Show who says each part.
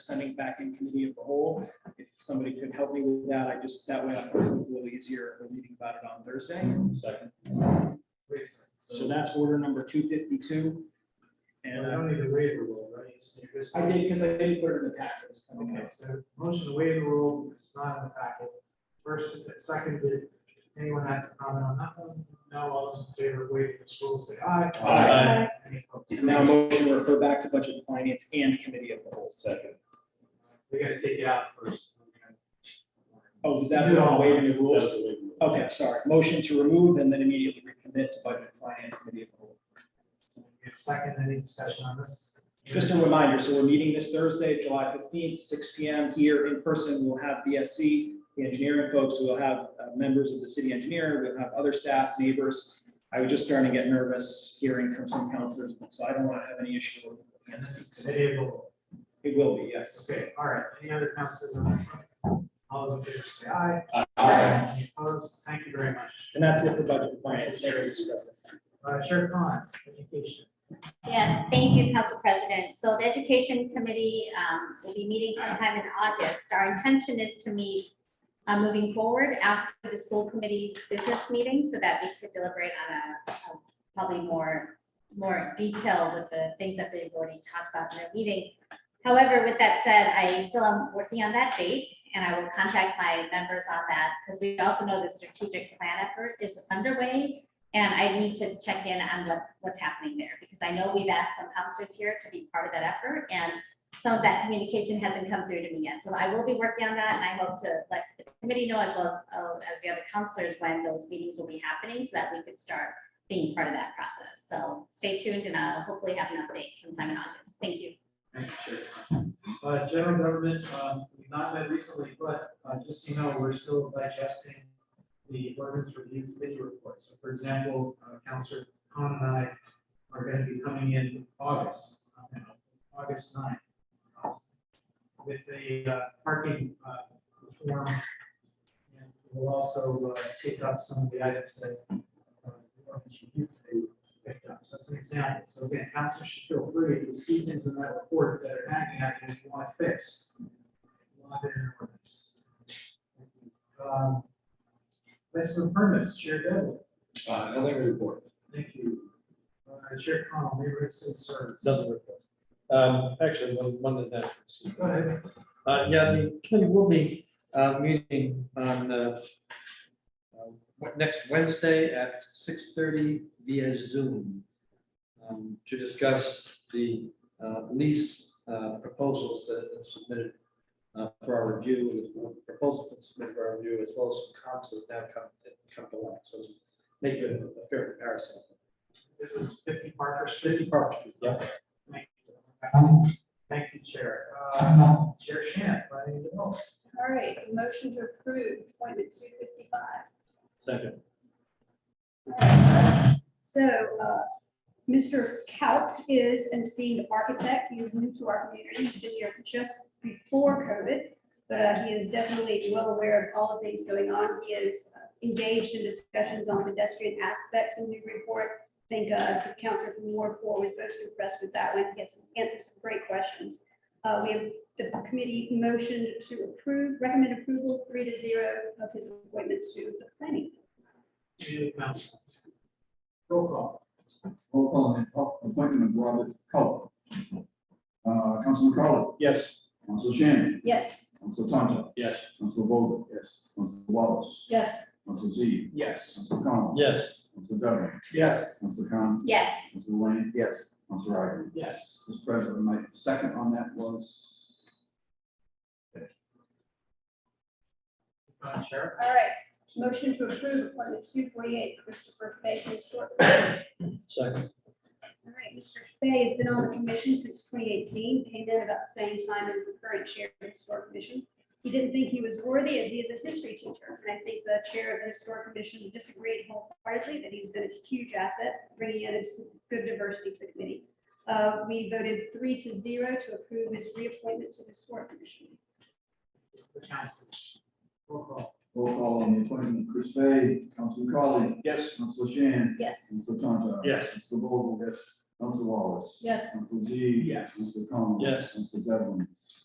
Speaker 1: sending back in committee of the whole. If somebody could help me with that, I just, that way it's a little easier We're reading about it on Thursday.
Speaker 2: Second.
Speaker 1: So that's order number two fifty-two. And uh,
Speaker 3: need to waive the rule, right?
Speaker 1: I did, because I didn't put it in the packet. this time.
Speaker 3: Okay, so motion to waive the rule, because it's not in the packet. First, second, did anyone have to comment on that one? No, all those in favor of waiving this rule, say aye.
Speaker 2: Aye.
Speaker 3: Any opposed?
Speaker 1: And now motion to refer back to budget and finance and committee of the whole.
Speaker 2: Second.
Speaker 3: We gotta take it out first.
Speaker 1: Oh, is that on waiving the rules? Okay, sorry. Motion to remove and then immediately recommit to budget and finance committee of the whole.
Speaker 3: Second, any discussion on this?
Speaker 1: Just a reminder, so we're meeting this Thursday, July fifteenth, six P M here in person. We'll have BSC, the engineering folks, we'll have uh, members of the city engineer, we'll have other staff, neighbors. I was just starting to get nervous hearing from some counselors, so I don't want to have any issue. with
Speaker 3: And this is
Speaker 1: it.
Speaker 3: committee of the whole.
Speaker 1: It will be, yes.
Speaker 3: Okay, all right, any other councilors? on that front? All those in favor, say aye. Any opposed? Thank you very much.
Speaker 1: And that's it for budget and finance. There it is.
Speaker 3: Uh, Sheriff Khan, education.
Speaker 4: Yeah, thank you, Council President. So the Education Committee um, will be meeting sometime in August. Our intention is to meet uh, moving forward after the school committee's business meeting so that we could deliberate on a a probably more, more detail with the things that they've already talked about in their meeting. However, with that said, I still am working on that date and I will contact my members on that because we also know the strategic plan effort is underway and I need to check in on what, what's happening there, because I know we've asked some counselors here to be part of that effort, and some of that communication hasn't come through to me yet, so I will be working on that, and I hope to let the committee know as well as, uh, as the other counselors when those meetings will be happening, so that we could start being part of that process, so stay tuned, and I'll hopefully have an update sometime in August, thank you.
Speaker 3: Thank you, Sheriff Khan. Uh, general government, um, we've not met recently, but, uh, just so you know, we're still digesting the ordinance review committee report. So for example, uh, Counselor Khan and I are gonna be coming in August, uh, August 9th uh, With the, uh, parking, uh, reform. And We'll also, uh, take up some of the items that uh, the ordinance review committee picked up. So that's an example. So again, council should feel free if you see things in that report that are hanging out and you want to fix. want it in your ordinance. Um, List of permits, Chair Devlin,
Speaker 2: Uh, nothing to report.
Speaker 3: thank you. Uh, Chair Connell, neighborhood civil service.
Speaker 5: Nothing report. Um, actually, one, one of that.
Speaker 3: Go ahead.
Speaker 5: Uh, yeah, the committee will be, uh, meeting on, uh, uh, what- next Wednesday at six thirty via Zoom um, to discuss the, uh, lease, uh, proposals that have been submitted, uh, for our review, the proposals that have been submitted for our review, as well as some comments that have now come, that come to light. So make it a a fair comparison.
Speaker 3: This is fifty Parker Street.
Speaker 5: Fifty Park Street, yeah.
Speaker 3: Thank you. Thank you, Chair. Uh, Chair Shan, by the vote.
Speaker 6: All right, motion to approve appointment two fifty-five.
Speaker 5: Second.
Speaker 6: So, uh, Mr. Kalk is an esteemed architect. He is new to our community. He's been here just before COVID. But uh, he is definitely well aware of all the things going on. He is uh, engaged in discussions on pedestrian aspects in the report. I think uh, the counselor from Ward Four was most impressed with that one. He had some, answered some great questions. Uh, we have the committee motioned to approve, recommend approval three to zero of his appointment to the planning.
Speaker 3: Community Council. Roll call.
Speaker 7: Roll call on the op- appointment of Robert Culp. Uh, Council McCollum,
Speaker 2: Yes.
Speaker 7: Council Shannon,
Speaker 6: Yes.
Speaker 7: Council Tonto,
Speaker 2: Yes.
Speaker 7: Council Vogel. Yes. Council Wallace,
Speaker 6: Yes.
Speaker 7: Council Z,
Speaker 1: Yes.
Speaker 7: Council Con.
Speaker 5: Yes.
Speaker 7: Council Devlin,
Speaker 1: Yes.
Speaker 7: Council Con,
Speaker 4: Yes,
Speaker 7: Council Lane. Yes. Council Ivory.
Speaker 3: Yes.
Speaker 7: Mr. President, my second on that was
Speaker 3: Uh, Chair.
Speaker 6: All right, motion to approve appointment two forty-eight, Christopher Fay to the Historic. Commission.
Speaker 5: Second.
Speaker 6: All right, Mr. Fay has been on the commission since twenty eighteen, came in about the same time as the current chair of the Historic Commission. He didn't think he was worthy as he is a history teacher, and I think the chair of the Historic Commission disagreed wholeheartedly that he's been a huge asset, bringing in some good diversity to the committee. Uh, we voted three to zero to approve his reappointment to the Historic Commission.
Speaker 3: The council. Roll call.
Speaker 7: roll call on the appointment of Chris Fay, Council McCollum,
Speaker 2: Yes.
Speaker 7: Council Shannon,
Speaker 6: Yes.
Speaker 7: Council Tonto.
Speaker 2: Yes.
Speaker 7: Council Vogel. Yes. Council Wallace.
Speaker 6: Yes.
Speaker 7: Council Z.
Speaker 1: Yes.
Speaker 7: Council Con.
Speaker 5: Yes.
Speaker 7: Council Devlin,